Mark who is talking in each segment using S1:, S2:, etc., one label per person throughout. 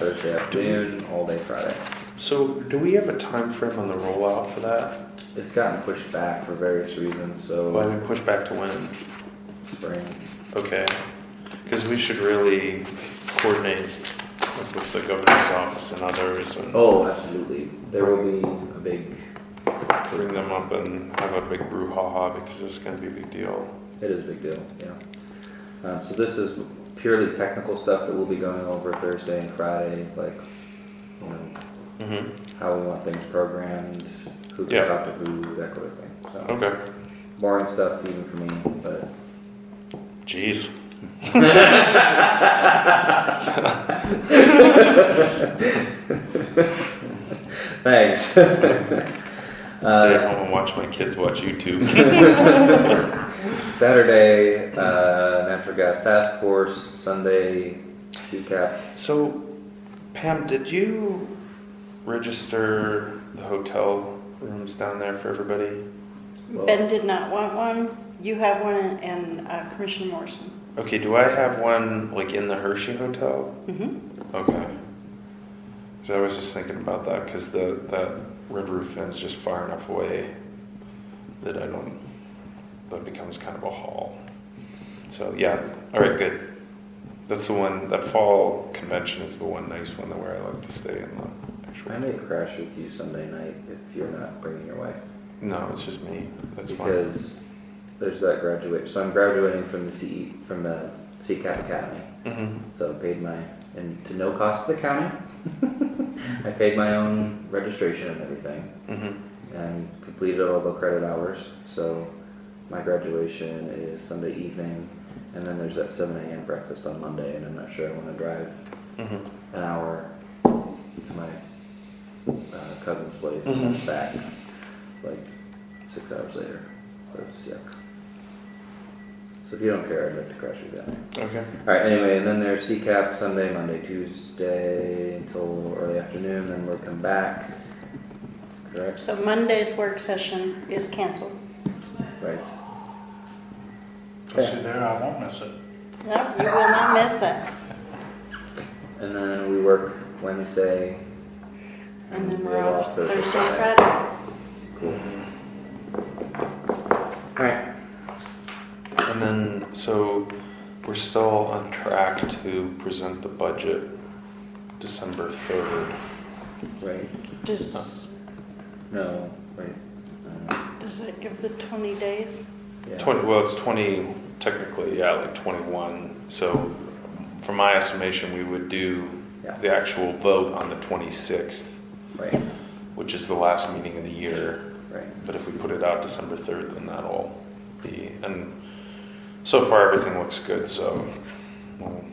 S1: Thursday afternoon, all day Friday.
S2: So do we have a time frame on the rollout for that?
S1: It's gotten pushed back for various reasons,
S2: Why
S1: so
S2: we push back to when?
S1: spring.
S2: Okay. Because we should really coordinate with- with the governor's office and others and
S1: Oh, absolutely. There will be a big,
S2: bring them up and have a big brouhaha because this is going to be a big deal.
S1: it is a big deal, yeah. Um, so this is purely technical stuff that we'll be going over Thursday and Friday, like, you know,
S2: Mm-hmm.
S1: how we want things programmed, who can
S2: Yeah.
S1: talk to who, that kind of thing. So
S2: Okay.
S1: boring stuff even for me, but
S2: Jeez.
S1: thanks.
S2: Stay
S1: uh,
S2: at home and watch my kids watch YouTube.
S1: Saturday, uh, natural gas task force. Sunday, CCAP.
S2: So, Pam, did you register the hotel rooms down there for everybody?
S1: Well-
S3: Ben did not want one. You have one, and uh, Commissioner Morrison.
S2: Okay, do I have one like in the Hershey Hotel?
S3: Mm-hmm.
S2: Okay. So I was just thinking about that because the that red roof end's just far enough away that I don't that becomes kind of a haul. So yeah, all right, good. That's the one. That fall convention is the one nice one that where I like to stay in the actual.
S1: I may crash with you Sunday night if you're not bringing your wife.
S2: No, it's just me. That's fine.
S1: because there's that graduate. So I'm graduating from the CE from the CCAP Academy.
S2: hmm
S1: So I paid my and to no cost to the county. I paid my own registration and everything,
S2: hmm
S1: and completed all the credit hours. So my graduation is Sunday evening, and then there's that 7 a.m. breakfast on Monday. And I'm not sure I want to drive
S2: hmm
S1: an hour to my uh, cousin's place
S2: Mhm.
S1: and back like six hours later. That's yuck. So if you don't care, I'd like to crash you down there.
S2: Okay.
S1: All right. Anyway, and then there's CCAP Sunday, Monday, Tuesday until early afternoon. Then we'll come back. Correct.
S3: So Monday's work session is canceled.
S1: Right.
S4: I'll sit there, I won't miss it.
S3: No, you will not miss that.
S1: And then we work Wednesday.
S3: And then we're
S1: have
S3: off Thursday,
S1: Friday.
S3: Friday.
S1: All right.
S2: And then, so we're still on track to present the budget December 3rd.
S1: Right.
S3: Does,
S1: No. Right. Uh,
S3: does it give the 20 days?
S1: yeah.
S2: 20, well, it's 20, technically, yeah, like 21. So from my estimation, we would do
S1: Yeah.
S2: the actual vote on the 26th,
S1: Right.
S2: which is the last meeting of the year.
S1: Right.
S2: But if we put it out December 3rd, then that'll be, and so far, everything looks good, so well,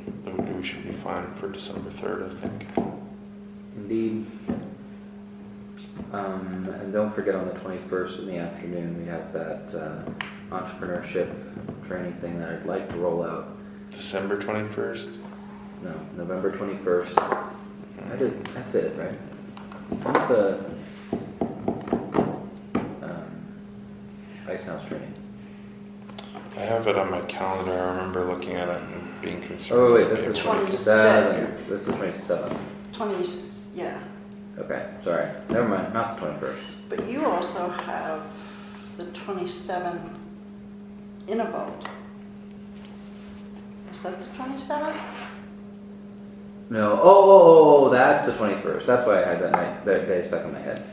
S2: we should be fine for December 3rd, I think.
S1: Indeed. Um, and don't forget on the 21st in the afternoon, we have that uh, entrepreneurship training thing that I'd like to roll out.
S2: December 21st?
S1: No, November 21st. I did, that's it, right? When's the um, Ice House training?
S2: I have it on my calendar. I remember looking at it and being concerned.
S1: Oh, wait, wait, this is
S3: Twenty-
S1: 27. This is 27.
S3: 20, yeah.
S1: Okay, sorry. Never mind, not the 21st.
S3: But you also have the 27th in a vote. Is that the 27th?
S1: No, oh, oh, oh, oh, that's the 21st. That's why I had that night, that day stuck in my head.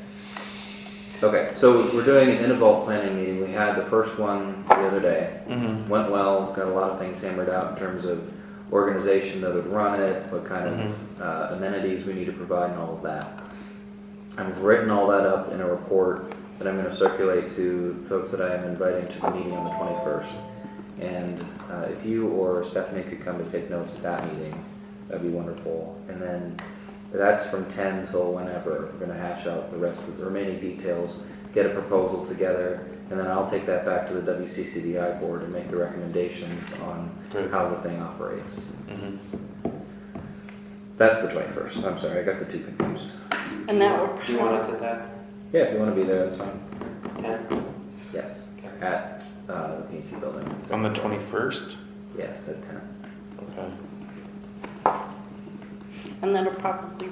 S1: Okay, so we're doing an interval planning meeting. We had the first one the other day.
S2: Mm-hmm.
S1: Went well, got a lot of things hammered out in terms of organization that would run it, what kind of uh, amenities we need to provide, and all of that. I've written all that up in a report that I'm going to circulate to folks that I am inviting to the meeting on the 21st. And uh, if you or Stephanie could come to take notes at that meeting, that'd be wonderful. And then that's from 10 till whenever. We're going to hash out the rest of the remaining details, get a proposal together, and then I'll take that back to the WCCDI board and make the recommendations on
S2: Great.
S1: how the thing operates.
S2: Mm-hmm.
S1: That's the 21st. I'm sorry, I got the two confused.
S3: And that will
S5: Do you want us
S3: probably-
S5: at that
S1: Yeah, if you want to be there, that's fine.
S5: ten?
S1: Yes,
S5: Okay.
S1: at uh, the PNC building.
S2: On the 21st?
S1: Yes, at 10.
S2: Okay.
S3: And that'll probably